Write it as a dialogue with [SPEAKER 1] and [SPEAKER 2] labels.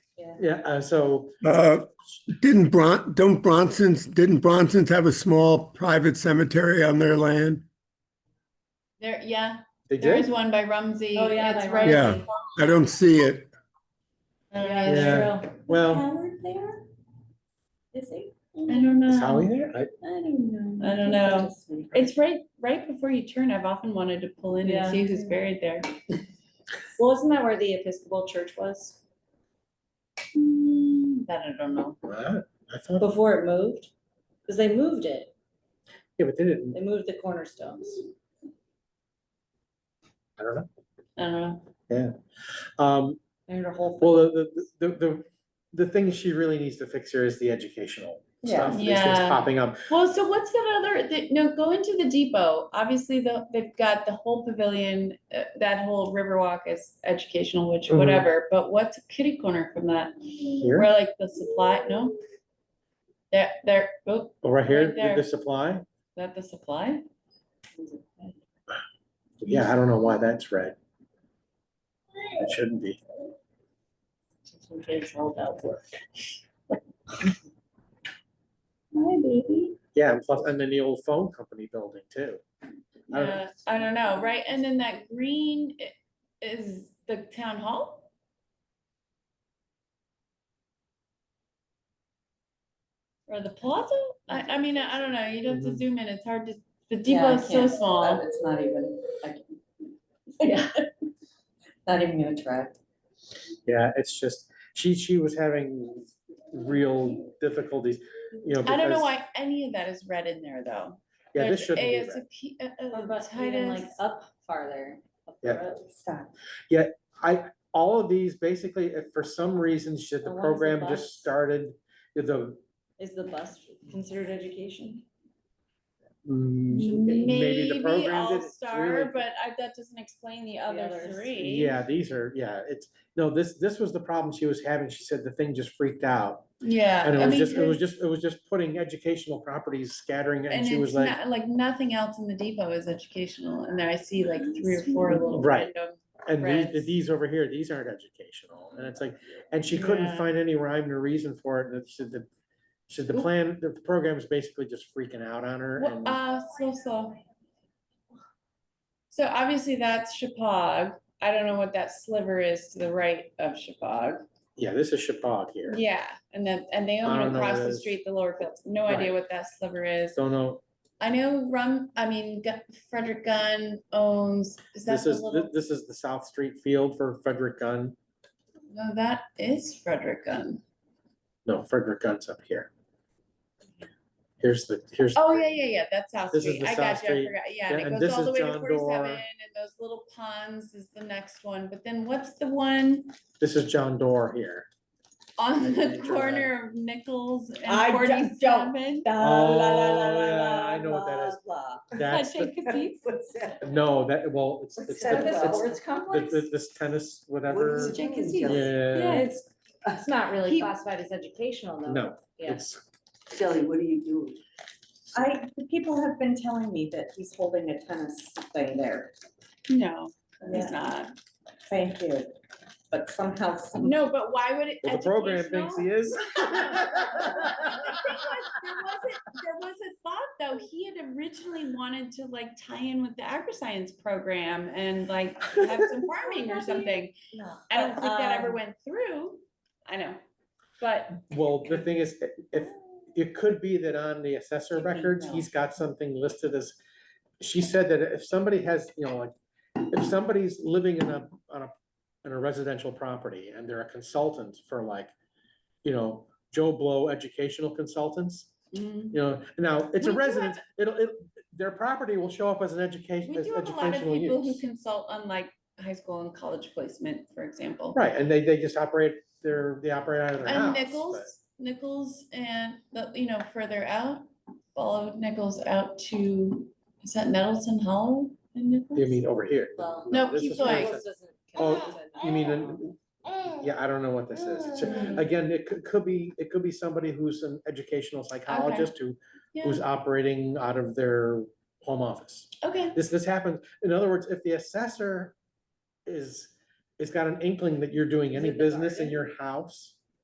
[SPEAKER 1] Yeah, uh, so,
[SPEAKER 2] Uh, Didn't Bron, don't Bronson's, didn't Bronson's have a small private cemetery on their land?
[SPEAKER 3] There, yeah,
[SPEAKER 1] they
[SPEAKER 3] there is
[SPEAKER 1] did?
[SPEAKER 3] one by Rumsey.
[SPEAKER 4] Oh, yeah,
[SPEAKER 3] It's
[SPEAKER 4] by
[SPEAKER 3] right-
[SPEAKER 2] Yeah. I don't see it.
[SPEAKER 3] I don't
[SPEAKER 4] Yeah,
[SPEAKER 3] know.
[SPEAKER 4] that's true.
[SPEAKER 1] Well-
[SPEAKER 5] Howard there? Is he?
[SPEAKER 3] I don't
[SPEAKER 1] Is
[SPEAKER 3] know.
[SPEAKER 1] Howie there? I,
[SPEAKER 5] I don't know.
[SPEAKER 3] I don't know.
[SPEAKER 5] Just wondering.
[SPEAKER 3] It's right, right before you turn. I've often wanted to pull in and
[SPEAKER 4] Yeah.
[SPEAKER 3] see who's buried there.
[SPEAKER 4] Well, isn't that where the Episcopal Church was
[SPEAKER 3] Hmm, That I don't know.
[SPEAKER 1] what? I thought,
[SPEAKER 4] before it moved? Because they moved it.
[SPEAKER 1] yeah, but they didn't,
[SPEAKER 4] They moved the cornerstones.
[SPEAKER 1] I don't know.
[SPEAKER 3] I don't know.
[SPEAKER 1] Um,
[SPEAKER 4] They moved a whole. thing.
[SPEAKER 1] well, the, the, the, the, the thing she really needs to fix here is the educational stuff.
[SPEAKER 4] Yeah.
[SPEAKER 1] These things
[SPEAKER 3] Yeah.
[SPEAKER 1] popping up.
[SPEAKER 3] Well, so what's that other, the- no, go into the depot. Obviously, the, they've got the whole pavilion, uh, that whole Riverwalk is educational, which
[SPEAKER 1] Mhm.
[SPEAKER 3] whatever, but what's a kitty corner from that?
[SPEAKER 1] Here,
[SPEAKER 3] Where like the supply, no? That, there, oh,
[SPEAKER 1] Oh, right here,
[SPEAKER 3] right
[SPEAKER 1] the- the
[SPEAKER 3] there.
[SPEAKER 1] supply.
[SPEAKER 3] is that the supply?
[SPEAKER 1] Yeah, I don't know why that's red. It shouldn't be.
[SPEAKER 4] Some kids held out work.
[SPEAKER 5] Hi, baby.
[SPEAKER 1] Yeah, and plus, and then the old phone company building too. I don't know.
[SPEAKER 3] Yeah, I don't know, right? And then that green i- is the town hall? Or the plaza? I, I mean, I I don't know, you'd have to
[SPEAKER 1] Mhm.
[SPEAKER 3] zoom in, it's hard to, the
[SPEAKER 4] Yeah, I
[SPEAKER 3] depot's so
[SPEAKER 4] can't-
[SPEAKER 3] small.
[SPEAKER 4] It's not even, I can't- yeah. Not even gonna try.
[SPEAKER 1] Yeah, it's just, she, she was having real difficulties, you know.
[SPEAKER 3] I don't know
[SPEAKER 1] because-
[SPEAKER 3] why any of that is red in there, though.
[SPEAKER 1] Yeah, this
[SPEAKER 3] There's
[SPEAKER 1] shouldn't be red.
[SPEAKER 3] ASAP, uh, uh,
[SPEAKER 4] Or about even like
[SPEAKER 3] Titus.
[SPEAKER 4] up farther. up the
[SPEAKER 1] Yeah.
[SPEAKER 4] road. Stop.
[SPEAKER 1] I, all of these, basically, if for some reason, she, the
[SPEAKER 4] The ones
[SPEAKER 1] program
[SPEAKER 4] above.
[SPEAKER 1] just started, the,
[SPEAKER 4] Is the bus considered education?
[SPEAKER 1] mm, maybe the
[SPEAKER 3] Maybe
[SPEAKER 1] program did.
[SPEAKER 3] All
[SPEAKER 1] it's
[SPEAKER 3] Star,
[SPEAKER 1] really-
[SPEAKER 3] but I, that doesn't explain the other
[SPEAKER 4] others.
[SPEAKER 3] three.
[SPEAKER 1] Yeah, these are, yeah, it's, no, this, this was the problem she was having. She said the thing just freaked out.
[SPEAKER 3] Yeah.
[SPEAKER 1] And
[SPEAKER 3] I
[SPEAKER 1] it was
[SPEAKER 3] mean,
[SPEAKER 1] just, it was
[SPEAKER 3] there's-
[SPEAKER 1] just, it was just putting educational properties scattering it, and
[SPEAKER 3] And
[SPEAKER 1] she was
[SPEAKER 3] it's
[SPEAKER 1] like,
[SPEAKER 3] not, like, nothing else in the depot is educational, and there I see like three or four little
[SPEAKER 1] Right.
[SPEAKER 3] random.
[SPEAKER 1] and these,
[SPEAKER 3] Reds.
[SPEAKER 1] these over here, these aren't educational. And it's like, and she couldn't
[SPEAKER 3] Yeah.
[SPEAKER 1] find any rhyme or reason for it. And she said the, she said the
[SPEAKER 3] Oop.
[SPEAKER 1] plan, the program is basically just freaking out on her.
[SPEAKER 3] Wha-
[SPEAKER 1] and-
[SPEAKER 3] Uh, so, so. So obviously that's Chapag, I don't know what that sliver is to the right of Chapag,
[SPEAKER 1] Yeah, this is Chapag here.
[SPEAKER 3] yeah, and then, and they
[SPEAKER 1] I don't
[SPEAKER 3] own
[SPEAKER 1] know
[SPEAKER 3] across
[SPEAKER 1] what it
[SPEAKER 3] the
[SPEAKER 1] is.
[SPEAKER 3] street, the lower fields, no idea
[SPEAKER 1] Right.
[SPEAKER 3] what that sliver is.
[SPEAKER 1] Don't know,
[SPEAKER 3] I know Rum, I mean, Gu- Frederick Gunn owns, is that
[SPEAKER 1] this
[SPEAKER 3] the
[SPEAKER 1] is, thi-
[SPEAKER 3] little,
[SPEAKER 1] this is the South Street Field for Frederick Gunn.
[SPEAKER 3] no, that is Frederick Gunn.
[SPEAKER 1] No, Frederick Gunn's up here. Here's the, here's.
[SPEAKER 3] Oh,
[SPEAKER 1] the-
[SPEAKER 3] yeah, yeah, yeah, that's South
[SPEAKER 1] This is
[SPEAKER 3] Street.
[SPEAKER 1] the
[SPEAKER 3] I
[SPEAKER 1] South
[SPEAKER 3] got you, I
[SPEAKER 1] Street.
[SPEAKER 3] forgot. Yeah,
[SPEAKER 1] Yeah,
[SPEAKER 3] and
[SPEAKER 1] and
[SPEAKER 3] it goes
[SPEAKER 1] this
[SPEAKER 3] all the
[SPEAKER 1] is
[SPEAKER 3] way to
[SPEAKER 1] John Doerr.
[SPEAKER 3] forty-seven and those little ponds is the next one. But then what's the one
[SPEAKER 1] This is John Doerr here.
[SPEAKER 3] on
[SPEAKER 1] I
[SPEAKER 3] the
[SPEAKER 1] picture that.
[SPEAKER 3] corner of Nichols and
[SPEAKER 4] I d- don't.
[SPEAKER 3] forty-seven?
[SPEAKER 1] Oh, yeah, I know what that is. That's, the- no, that, well, it's, it's,
[SPEAKER 5] that
[SPEAKER 1] the-
[SPEAKER 5] about?
[SPEAKER 1] it's
[SPEAKER 5] Sports
[SPEAKER 1] the- the- this tennis, whatever.
[SPEAKER 5] it?
[SPEAKER 4] Yeah,
[SPEAKER 1] Yeah,
[SPEAKER 4] it's, it's not really
[SPEAKER 5] He-
[SPEAKER 4] classified as educational though.
[SPEAKER 1] no,
[SPEAKER 4] Yeah.
[SPEAKER 1] it's,
[SPEAKER 6] Shelley, what do you do?
[SPEAKER 4] I, people have been telling me that he's holding a tennis thing there.
[SPEAKER 3] No, it's
[SPEAKER 4] Yeah.
[SPEAKER 3] not.
[SPEAKER 4] Thank you. But somehow, some-
[SPEAKER 3] No, but why would it?
[SPEAKER 1] well, the program thinks he
[SPEAKER 3] educational?
[SPEAKER 1] is.
[SPEAKER 3] The thing was, There wasn't, there was a thought though, he had originally wanted to like tie in with the agri-science program and like have some farming or something. I don't think that ever
[SPEAKER 4] Um,
[SPEAKER 3] went through. I know, but
[SPEAKER 1] Well, the thing is, i- if, it could be that on the assessor
[SPEAKER 4] You think
[SPEAKER 1] records,
[SPEAKER 4] no.
[SPEAKER 1] he's got something listed as, she said that if somebody has, you know, like, if somebody's living in a, on a, in a residential property and they're a consultant for like, you know, Joe Blow Educational Consultants,
[SPEAKER 3] mm,
[SPEAKER 1] you know, now, it's a
[SPEAKER 3] We do have-
[SPEAKER 1] residence, it'll, it, their property will show up as an education,
[SPEAKER 3] we
[SPEAKER 1] as
[SPEAKER 3] do have a lot of
[SPEAKER 1] educational
[SPEAKER 3] people who
[SPEAKER 1] use.
[SPEAKER 3] consult on like high school and college placement, for example.
[SPEAKER 1] Right, and they, they just operate, their they operate out of their
[SPEAKER 3] And
[SPEAKER 1] house.
[SPEAKER 3] Nichols,
[SPEAKER 1] but-
[SPEAKER 3] Nichols and, the you know, further out, followed Nichols out to, is that Nettleton Hollow in Nichols?
[SPEAKER 1] You mean over here?
[SPEAKER 4] well.
[SPEAKER 3] No,
[SPEAKER 1] this
[SPEAKER 3] keep
[SPEAKER 1] is what I
[SPEAKER 3] going.
[SPEAKER 1] said.
[SPEAKER 4] Nichols doesn't
[SPEAKER 1] Oh,
[SPEAKER 4] count as a-
[SPEAKER 1] You mean, in-
[SPEAKER 3] Oh. Mm,
[SPEAKER 1] yeah, I don't know what this is. It's a- Again, it could, could be, it could be somebody who's an educational psychologist who,
[SPEAKER 3] Yeah,
[SPEAKER 1] who's operating out of their home office.
[SPEAKER 3] okay,
[SPEAKER 1] This, this happens, in other words, if the assessor is, has got an inkling that you're doing any
[SPEAKER 4] it the
[SPEAKER 1] business in
[SPEAKER 4] garden?
[SPEAKER 1] your house,